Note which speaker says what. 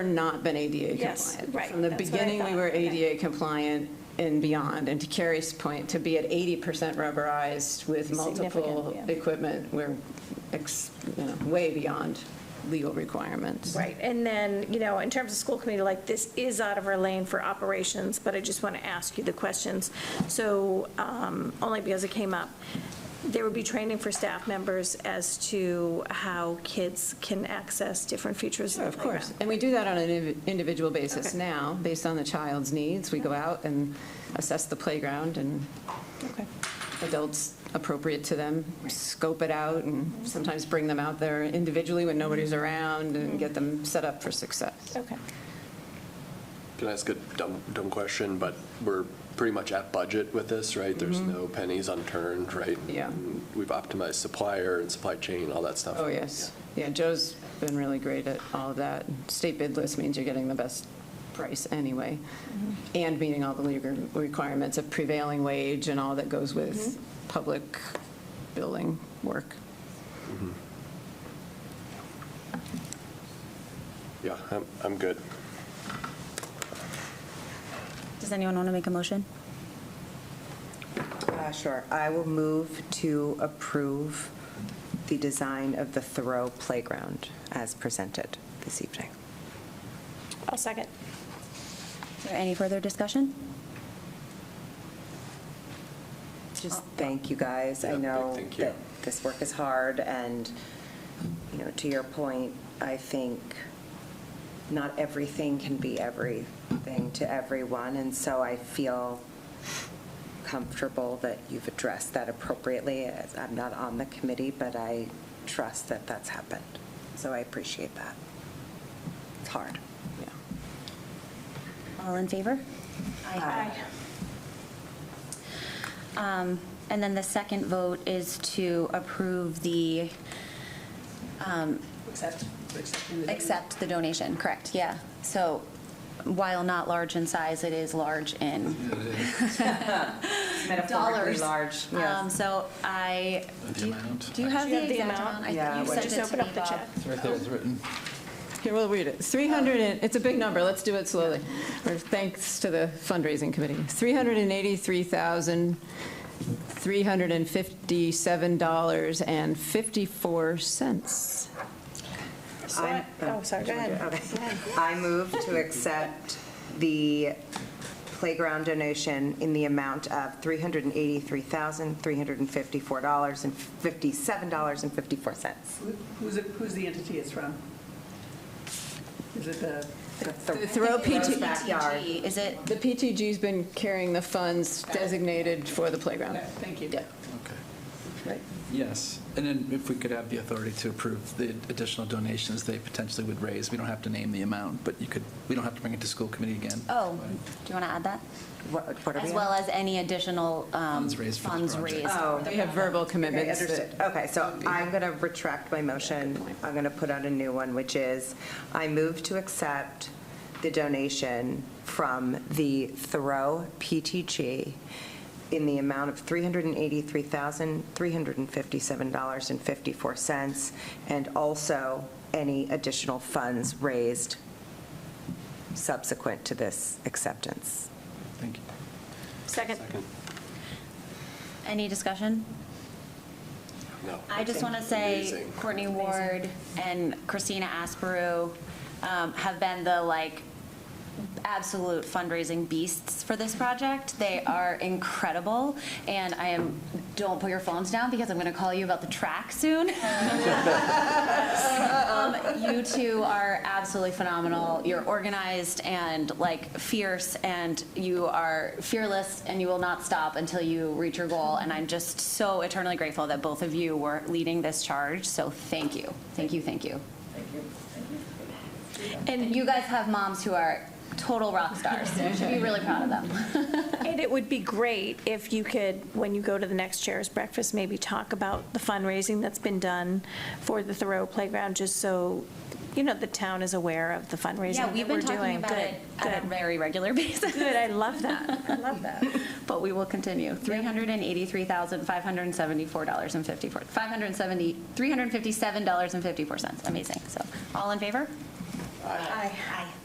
Speaker 1: not been ADA
Speaker 2: Yes,
Speaker 1: compliant.
Speaker 2: right,
Speaker 1: From the
Speaker 2: that's what I
Speaker 1: beginning, we
Speaker 2: thought,
Speaker 1: were
Speaker 2: okay.
Speaker 1: ADA compliant and beyond. And to Carrie's point, to be at 80% rubberized with multiple
Speaker 2: Significant, yeah.
Speaker 1: equipment, we're, ex- you know, way beyond legal requirements.
Speaker 2: Right, and then, you know, in terms of school committee, like, this is out of our lane for operations, but I just want to ask you the questions. So, um, only because it came up, there would be training for staff members as to how kids can access different features of the
Speaker 1: Of course.
Speaker 2: playground.
Speaker 1: And we do that on an indiv- individual basis
Speaker 2: Okay.
Speaker 1: now, based on the child's needs. We go out and assess the playground and
Speaker 2: Okay.
Speaker 1: adults appropriate to them, scope it out and
Speaker 2: Mm-hmm.
Speaker 1: sometimes bring them out there individually when nobody's around and get them set up for success.
Speaker 2: Okay.
Speaker 3: Can I ask a dumb, dumb question, but we're pretty much at budget with this, right? There's no pennies unturned, right?
Speaker 1: Mm-hmm. Yeah.
Speaker 3: And We've optimized supplier and supply chain, all that stuff.
Speaker 1: Oh, yes. Yeah, Joe's been really great at all of that. State bid list means you're getting the best price anyway, and meeting all the legal requirements of prevailing wage and all that goes with public building work.
Speaker 3: Yeah, I'm, I'm good.
Speaker 4: Does anyone want to make a motion?
Speaker 5: Uh, Sure. I will move to approve the design of the Thoreau Playground as presented this e- evening.
Speaker 2: I'll second.
Speaker 4: Is there any further discussion?
Speaker 5: Just thank you guys.
Speaker 3: Yeah,
Speaker 5: I
Speaker 3: big
Speaker 5: know
Speaker 3: thank you.
Speaker 5: that this work is hard, and, you know, to your point, I think not everything can be everything to everyone, and so I feel comfortable that you've addressed that appropriately. As- I'm not on the committee, but I trust that that's happened, so I appreciate that. It's hard.
Speaker 1: Yeah.
Speaker 4: All in favor? Um, And then the second vote is to approve the, um,
Speaker 6: Accept, accepting the.
Speaker 4: accept the donation, correct, yeah. So while not large in size, it is large in dollars. Um, So I, do you- do you have
Speaker 2: Do you
Speaker 4: the
Speaker 2: have the
Speaker 4: exact
Speaker 2: amount?
Speaker 4: amount? I
Speaker 5: Yeah,
Speaker 4: think you
Speaker 5: what-
Speaker 4: sent
Speaker 2: Just
Speaker 4: it to
Speaker 2: open
Speaker 4: me,
Speaker 2: up the
Speaker 4: Bob.
Speaker 2: check.
Speaker 7: It's right there, it's written.
Speaker 1: Here, we'll read it. 300, and- it's a big number, let's do it slowly, or thanks to the fundraising committee. $383,357.54.
Speaker 2: So I- Oh, sorry, go ahead.
Speaker 5: Okay. I move to accept the playground donation in the amount of $383,354 and $57.54.
Speaker 6: Who- Who's, it- who's the entity it's from? Is it the,
Speaker 5: The
Speaker 1: Thoreau PT
Speaker 5: Backyard.
Speaker 4: Is it,
Speaker 1: The PTG's been carrying the funds designated for the playground.
Speaker 6: okay, thank you.
Speaker 1: Yeah.
Speaker 7: Okay.
Speaker 1: Right.
Speaker 7: Yes, and then if we could have the authority to approve the additional donations they potentially would raise, we don't have to name the amount, but you could, we don't have to bring it to school committee again.
Speaker 4: oh, do you want to add that?
Speaker 5: What what are we
Speaker 4: As
Speaker 5: on?
Speaker 4: well as any additional um,
Speaker 7: Funds raised for this
Speaker 4: funds
Speaker 7: project.
Speaker 4: raised.
Speaker 5: Oh,
Speaker 1: They have verbal
Speaker 5: okay,
Speaker 1: commitments that
Speaker 5: understood. Okay, so I'm going to retract my motion. I'm going to put out a new one, which is, I move to accept the donation from the Thoreau PTG in the amount of $383,357.54, and also any additional funds raised subsequent to this acceptance.
Speaker 7: Thank you.
Speaker 2: Second.
Speaker 4: Any discussion?
Speaker 3: No.
Speaker 4: I just want to say
Speaker 3: Amazing.
Speaker 4: Courtney Ward and Christina Asperu um, have been the like absolute fundraising beasts for this project. They are incredible, and I am, don't put your phones down because I'm going to call you about the track soon. Um, You two are absolutely phenomenal. You're organized and like fierce, and you are fearless, and you will not stop until you reach your goal. And I'm just so eternally grateful that both of you were leading this charge. So thank you, thank you, thank you. And you guys have moms who are total rock stars. You should be really proud of them.
Speaker 2: And it would be great if you could, when you go to the next chair's breakfast, maybe talk about the fundraising that's been done for the Thoreau Playground, just so, you know, the town is aware of the fundraising
Speaker 4: Yeah,
Speaker 2: that
Speaker 4: we've
Speaker 2: we're
Speaker 4: been talking
Speaker 2: doing.
Speaker 4: about
Speaker 2: Good,
Speaker 4: it on a
Speaker 2: good.
Speaker 4: very regular basis.
Speaker 2: Good, I love that. I love that.
Speaker 4: But we will continue. $383,574.54, 570, $357.54. Amazing. So all in favor?
Speaker 5: Aye.
Speaker 4: Aye.